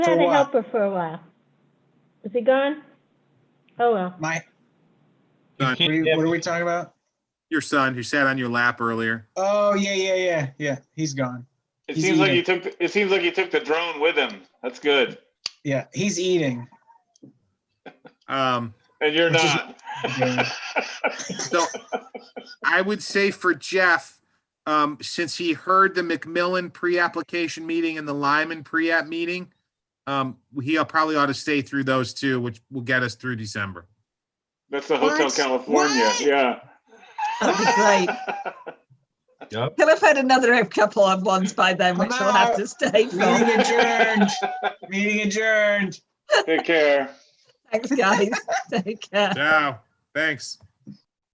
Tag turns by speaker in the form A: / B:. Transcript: A: For
B: had a
A: what?
B: helper for a while. Is he gone? Oh, well.
A: My,
C: Son,
A: what are you- what are we talking about?
C: Your son who sat on your lap earlier.
A: Oh, yeah, yeah, yeah, yeah. He's gone.
D: It
A: He's
D: seems like
A: eating.
D: you took, it seems like you took the drone with him. That's good.
A: Yeah, he's eating.
C: Um,
D: And you're
A: Which is-
D: not.
A: Yeah.
C: so I would say for Jeff, um, since he heard the McMillan pre-application meeting and the Lyman pre-app meeting, um, he probably ought to stay through those two, which will get us through December.
D: That's the Hotel
E: What?
D: California,
E: What?
D: yeah.
E: That'd be
D: Ah!
E: great. He'll have had another couple of ones by then, which he'll have to stay for.
A: Meeting adjourned. Meeting adjourned.
D: Take care.
E: Thanks, guys. Take care.
C: Ciao. Thanks.